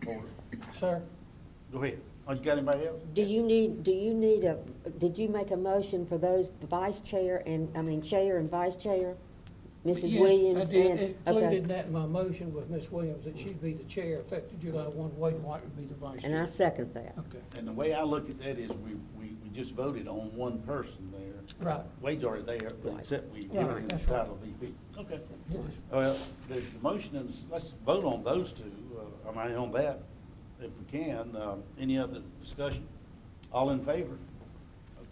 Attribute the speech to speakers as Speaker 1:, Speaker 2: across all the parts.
Speaker 1: for it.
Speaker 2: Sir,
Speaker 1: Go ahead. Oh, you got anybody else?
Speaker 3: Do you need, do you need a, did you make a motion for those vice chair and, I mean, chair and vice chair? Mrs.
Speaker 2: yes,
Speaker 3: Williams
Speaker 2: I did.
Speaker 3: and,
Speaker 2: Included in
Speaker 3: okay.
Speaker 2: that in my motion was Ms. Williams, that she'd be the chair effective July one, Wade White would be the vice
Speaker 3: And I
Speaker 2: chair.
Speaker 3: second that.
Speaker 2: Okay,
Speaker 1: And the way I look at that is we, we, we just voted on one person there.
Speaker 2: right,
Speaker 1: Wade's already there, but except we give
Speaker 2: Right,
Speaker 1: him the
Speaker 2: that's right.
Speaker 1: title of VP. Okay.
Speaker 2: yes,
Speaker 1: Well, there's the motion and s- let's vote on those two, uh, I mean, on that, if we can. Um, Any other discussion? All in favor?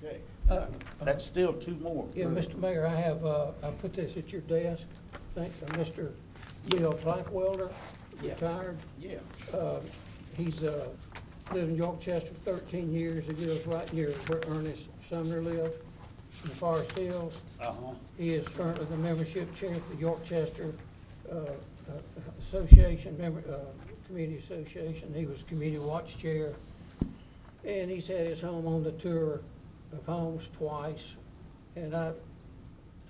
Speaker 1: Okay.
Speaker 2: Uh, uh,
Speaker 1: That's still two more.
Speaker 2: yeah, Mr. Mayor, I have, uh, I put this at your desk, thanks, to Mr. Bill Blackwelder,
Speaker 1: Yeah.
Speaker 2: retired.
Speaker 1: Yeah.
Speaker 2: Uh, He's uh, lived in York Chester for 13 years. He lives right near where Ernest Sumner lives in Forest Hills.
Speaker 1: Uh-huh.
Speaker 2: He is currently the membership chair for the York Chester uh, uh, Association, member, uh, Community Association. He was community watch chair. And he's had his home on the tour of homes twice. And I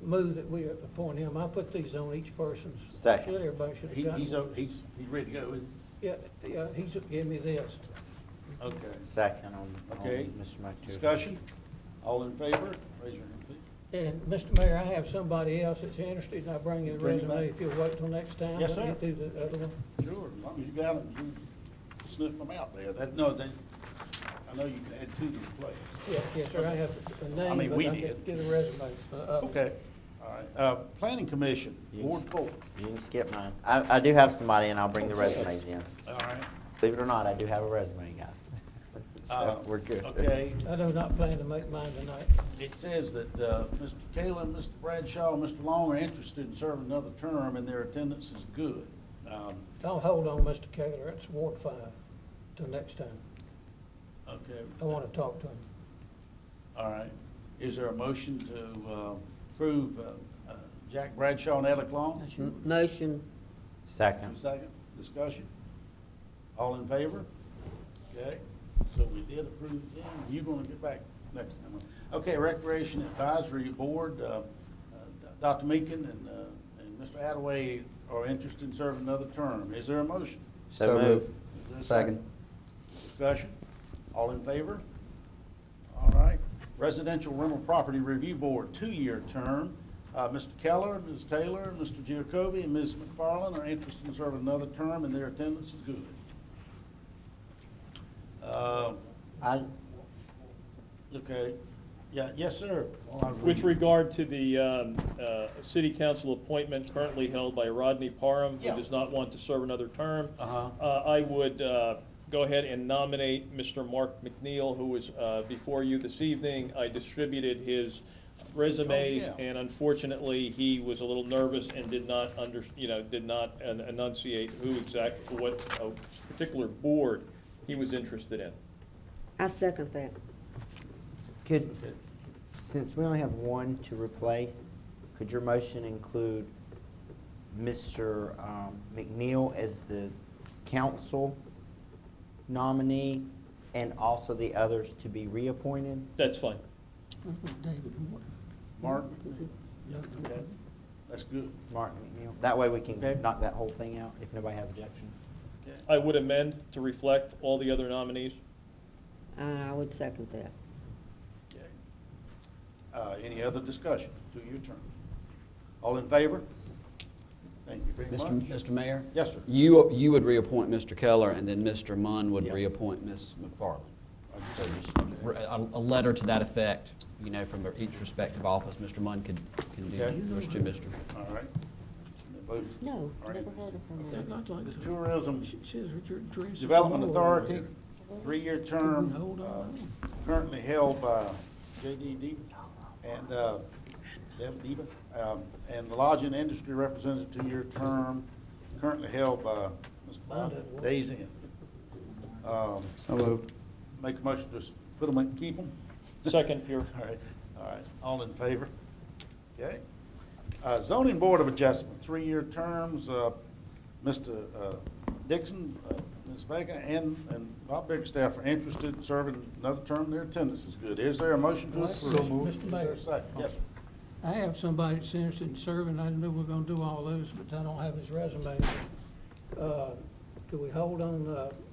Speaker 2: move that we appoint him. I put these on each person's.
Speaker 4: Second.
Speaker 2: Everybody should have
Speaker 1: He,
Speaker 2: gotten
Speaker 1: he's,
Speaker 2: one.
Speaker 1: o- he's, he's ready to go, isn't
Speaker 2: Yeah, yeah, he's gave me this.
Speaker 1: he? Okay.
Speaker 4: Second on, on
Speaker 1: Okay.
Speaker 4: Mr. McTeer.
Speaker 1: Discussion? All in favor? Raise your hand, please.
Speaker 2: And, Mr. Mayor, I have somebody else that's interested, and I'll bring you the
Speaker 1: Bring it
Speaker 2: resume
Speaker 1: back.
Speaker 2: if you'll wait till next time.
Speaker 1: Yes,
Speaker 2: Let
Speaker 1: sir.
Speaker 2: me do the other one.
Speaker 1: Sure, as long as you got them, you sniff them out there. That, no, they, I know you can add two to the plate.
Speaker 2: Yeah, yes, sir, I have a
Speaker 1: I mean,
Speaker 2: name, but
Speaker 1: we
Speaker 2: I can
Speaker 1: did.
Speaker 2: get a resume. uh, up.
Speaker 1: Okay, all right. Uh, Planning Commission, Ward Four.
Speaker 4: You can skip mine. I, I do have somebody and I'll bring the resumes in.
Speaker 1: All right.
Speaker 4: Believe it or not, I do have a resume, guys.
Speaker 1: Uh,
Speaker 4: So, we're good.
Speaker 1: Okay,
Speaker 2: I do not plan to make mine tonight.
Speaker 1: it says that, uh, Mr. Kalin, Mr. Bradshaw, and Mr. Long are interested in serving another term, and their attendance is good. Um,
Speaker 2: I'll hold on, Mr. Kaler, it's Ward Five, till next time.
Speaker 1: okay,
Speaker 2: I want to talk to him.
Speaker 1: all right. Is there a motion to, uh, approve, uh, uh, Jack Bradshaw and Alec Long?
Speaker 3: Motion,
Speaker 4: Second.
Speaker 1: Second, discussion. All in favor? Okay, so we did approve them, you're gonna get back next time. Okay, Recreation Advisory Board, uh, uh, Dr. Meakin and, uh, and Mr. Attaway are interested in serving another term. Is there a motion?
Speaker 4: So move.
Speaker 1: Is there a
Speaker 4: Second.
Speaker 1: Discussion, all in favor? All right, Residential Rental Property Review Board, two-year term. Uh, Mr. Keller, Ms. Taylor, Mr. Giacobi, and Ms. McFarland are interested in serving another term, and their attendance is good. Uh,
Speaker 4: I,
Speaker 1: Okay, yeah, yes, sir. Well, I-
Speaker 5: With regard to the um, uh, city council appointment currently held by Rodney Parham, who
Speaker 1: Yeah.
Speaker 5: does not want to serve another term,
Speaker 1: Uh-huh.
Speaker 5: uh, I would uh, go ahead and nominate Mr. Mark McNeil, who was uh, before you this evening. I distributed his resumes,
Speaker 1: Oh, yeah.
Speaker 5: and unfortunately, he was a little nervous and did not under, you know, did not en- enunciate who exact, what uh, particular board he was interested in.
Speaker 3: I second that.
Speaker 4: could,
Speaker 1: Okay.
Speaker 4: since we only have one to replace, could your motion include Mr. um, McNeil as the council nominee and also the others to be reappointed?
Speaker 5: That's fine.
Speaker 1: Mark, okay, that's good.
Speaker 4: Martin McNeil? That way we can
Speaker 1: Okay.
Speaker 4: knock that whole thing out if nobody has objection.
Speaker 1: Okay.
Speaker 5: I would amend to reflect all the other nominees.
Speaker 3: And I would second that.
Speaker 1: Okay. Uh, Any other discussion? Two-year term. All in favor? Thank you very
Speaker 6: Mr.
Speaker 1: much.
Speaker 6: Mr. Mayor?
Speaker 1: Yes, sir.
Speaker 6: You, you would reappoint Mr. Keller, and then Mr. Munn would
Speaker 1: Yeah.
Speaker 6: reappoint Ms. McFarland.
Speaker 1: I
Speaker 6: So
Speaker 1: just-
Speaker 6: just re- a, a letter to that effect, you know, from their each respective office, Mr. Munn could, can do
Speaker 1: Okay.
Speaker 6: yours to Mr.
Speaker 1: All right. The votes
Speaker 3: No,
Speaker 1: are in.
Speaker 3: never heard of
Speaker 1: Okay.
Speaker 3: her.
Speaker 2: I'd like
Speaker 1: The
Speaker 2: to-
Speaker 1: Tourism
Speaker 2: says her dress
Speaker 1: Development Authority, three-year
Speaker 2: Can we
Speaker 1: term,
Speaker 2: hold on?
Speaker 1: uh, currently held by J.D. Deba and, uh, Deb Deba, um, and the Lodging Industry Representative, two-year term, currently held by Ms. Bonda Days Inn. Um,
Speaker 6: So moved.
Speaker 1: Make a motion to s- put them, in- keep them?
Speaker 5: Second, Pure.
Speaker 1: All right, all right, all in favor? Okay. Uh, Zoning Board of Adjustment, three-year terms, uh, Mr. uh, Dixon, uh, Ms. Vega, and, and Bob Bigstaff are interested in serving another term. Their attendance is good. Is there a motion to approve?
Speaker 2: So moved.
Speaker 1: Is there a second? Yes, sir.
Speaker 2: I have somebody that's interested in serving, I knew we are gonna do all those, but I don't have his resume. Uh, Could we hold on, uh,